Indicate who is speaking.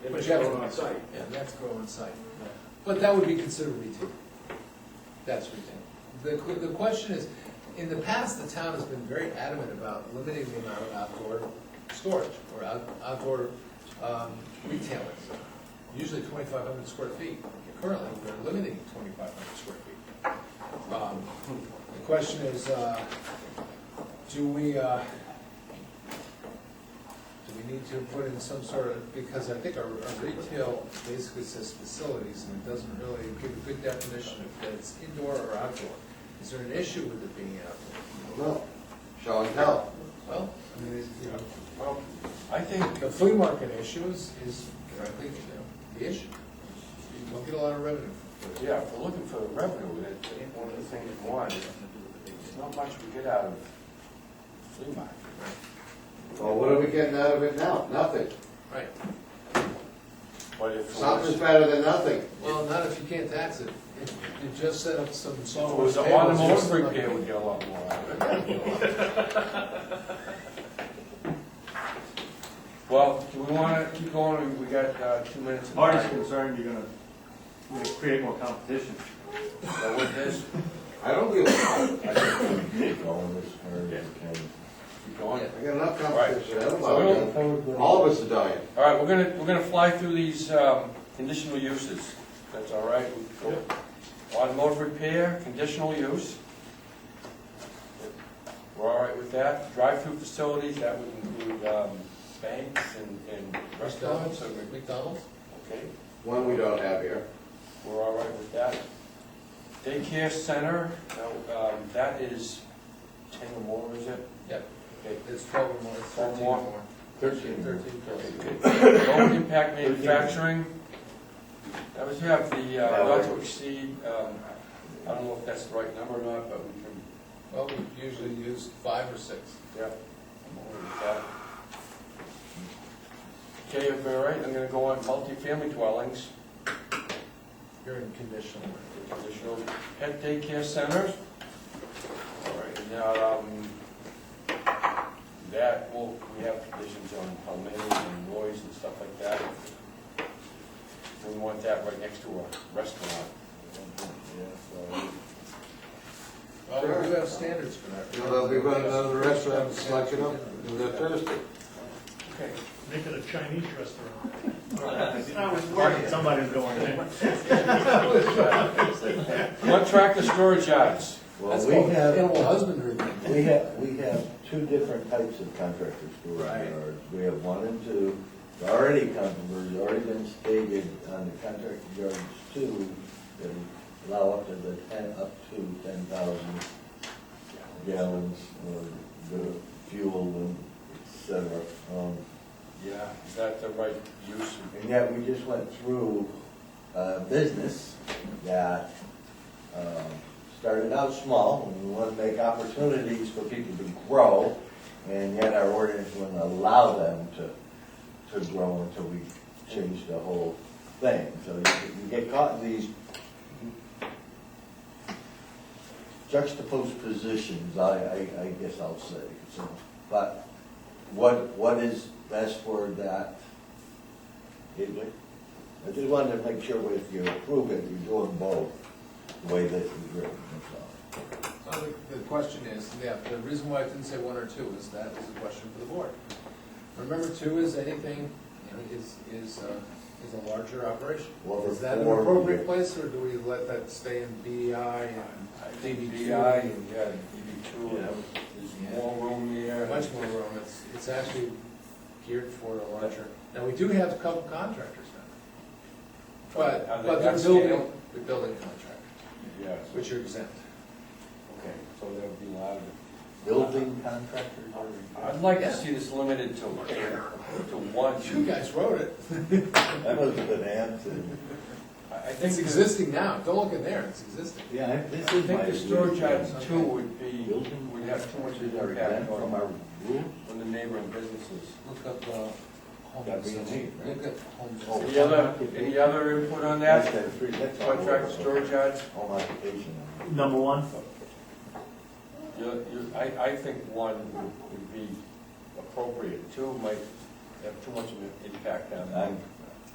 Speaker 1: That's
Speaker 2: Yeah.
Speaker 1: grown on site.
Speaker 2: Yeah, that's grow on site.
Speaker 1: Yeah.
Speaker 2: But that would be considered retail. That's retail. The, que- the question is, in the past, the town has been very adamant about limiting the amount of outdoor storage or out- outdoor um, retailers. Usually twenty-five hundred square feet. Currently, we're limiting twenty-five hundred square feet. Um, The question is, uh, do we, uh, do we need to put in some sort of, because I think our our retail basically says facilities, and it doesn't really give a good definition of that it's indoor or outdoor. Is there an issue with it being outdoor?
Speaker 3: No, show and tell.
Speaker 2: Well, I mean, it's, you know,
Speaker 1: Well, I think,
Speaker 2: the flea market issue is, is frankly, you know, the issue. You don't get a lot of revenue.
Speaker 1: yeah, if we're looking for revenue, that, that one of the things we want, there's not much we get out of flea market.
Speaker 3: Well, what are we getting out of it now? Nothing.
Speaker 2: Right.
Speaker 1: But if it
Speaker 3: Something's
Speaker 1: was,
Speaker 3: better than nothing.
Speaker 2: Well, not if you can't tax it. If you just set up some
Speaker 1: if it
Speaker 2: software.
Speaker 1: was an automotive repair, we'd get a lot more out of it. Well, do we want to keep going, Or we got uh, two minutes? of
Speaker 4: Marty's
Speaker 1: time?
Speaker 4: concerned you're gonna, we're gonna create more competition.
Speaker 1: So with this,
Speaker 3: I don't give a fuck.
Speaker 5: I think we keep going this area if we can.
Speaker 1: keep going.
Speaker 3: I got enough competition. I don't
Speaker 1: So we
Speaker 3: want to- All of us are dying.
Speaker 1: All right, we're gonna, we're gonna fly through these um, conditional uses. That's all right? We can go. Automotive repair, conditional use. We're all right with that. Drive-through facilities, that would include um, banks and and
Speaker 2: McDonald's,
Speaker 1: restaurants. so we-
Speaker 2: McDonald's?
Speaker 1: Okay,
Speaker 3: One we don't have here.
Speaker 1: we're all right with that. Daycare center, now, um, that is ten or more, is it?
Speaker 2: Yep.
Speaker 1: Okay.
Speaker 2: It's twelve or more, it's
Speaker 1: Twelve
Speaker 2: thirteen or
Speaker 1: more.
Speaker 2: more.
Speaker 5: Thirteen.
Speaker 2: Thirteen, thirteen.
Speaker 1: Low impact manufacturing, that was, you have the, uh, not to exceed, um, I don't know if that's the right number or not, but we can,
Speaker 2: Well, we usually use five or six.
Speaker 1: yeah. I'm all right with that. Okay, if you're all right, I'm gonna go on multifamily dwellings,
Speaker 2: You're in conditional.
Speaker 1: additional pet daycare centers. All right, now, um, that, well, we have conditions on plumbing and noise and stuff like that. We want that right next to a restaurant.
Speaker 2: Well, we do have standards for that.
Speaker 3: You know, they'll be running out of the restaurant, slacking up, and they're thirsty.
Speaker 1: Okay.
Speaker 6: Make it a Chinese restaurant.
Speaker 4: I was worried. Somebody's going in.
Speaker 1: What tractor storage yards?
Speaker 2: That's
Speaker 5: Well,
Speaker 2: called
Speaker 5: we have,
Speaker 2: animal husbandry. thing.
Speaker 5: we have, we have two different types of contractor storage yards. We have one and two, It's already controversial, already been stated on the contractor yards two, that allow up to the ten, up to ten thousand gallons of the fuel and et cetera. Um,
Speaker 1: Yeah, is that the right use?
Speaker 5: And yet, we just went through a business that um, started out small, and we want to make opportunities for people to grow, and yet our ordinance wouldn't allow them to, to grow until we change the whole thing. So you you get caught in these juxtaposed positions, I, I, I guess I'll say, so. But what, what is best for that did we? I just wanted to make sure if you approve it, you're doing both, the way that it's written, that's
Speaker 2: Well, the- The question is, yeah, the reason why I didn't say one or two is that was a question for the board. Remember, two is anything, you know, is, is, uh, is a larger operation.
Speaker 5: Well,
Speaker 2: Is that an
Speaker 5: four-
Speaker 2: appropriate place, or do we let that stay in BEI
Speaker 1: I
Speaker 2: and
Speaker 1: think
Speaker 2: DB two?
Speaker 1: DI and, yeah, DB two, there's more room there.
Speaker 2: Much more room, it's, it's actually geared for a larger, now, we do have a couple contractors now. But,
Speaker 1: Are they
Speaker 2: but they're
Speaker 1: upscale?
Speaker 2: building, they're building contractors,
Speaker 1: Yeah, so-
Speaker 2: which are exempt.
Speaker 1: okay, so that would be allowed.
Speaker 5: all. Building contractors are
Speaker 1: I'd like to see this limited to, to one.
Speaker 2: You guys wrote it,
Speaker 5: That must have been answered.
Speaker 1: I I think,
Speaker 2: it's
Speaker 1: the-
Speaker 2: existing now, don't look in there, it's existing.
Speaker 5: Yeah,
Speaker 1: I
Speaker 5: this is my.
Speaker 1: think the storage
Speaker 5: rules.
Speaker 1: yards too would be,
Speaker 5: Building
Speaker 1: would have too much
Speaker 5: contractors are
Speaker 1: impact
Speaker 5: exempt from
Speaker 1: on,
Speaker 5: our rules.
Speaker 1: on the neighboring businesses.
Speaker 2: Look up, uh, home
Speaker 5: That'd be
Speaker 2: facility.
Speaker 5: neat, right?
Speaker 2: Look up home
Speaker 5: Oh.
Speaker 2: facility.
Speaker 1: Any other, any other input on that?
Speaker 5: That's three, that's all.
Speaker 1: Contract storage yards?
Speaker 5: Home occupation.
Speaker 4: Number one,
Speaker 1: You, you, I, I think one would be appropriate, two might have too much of an impact on
Speaker 5: I'm,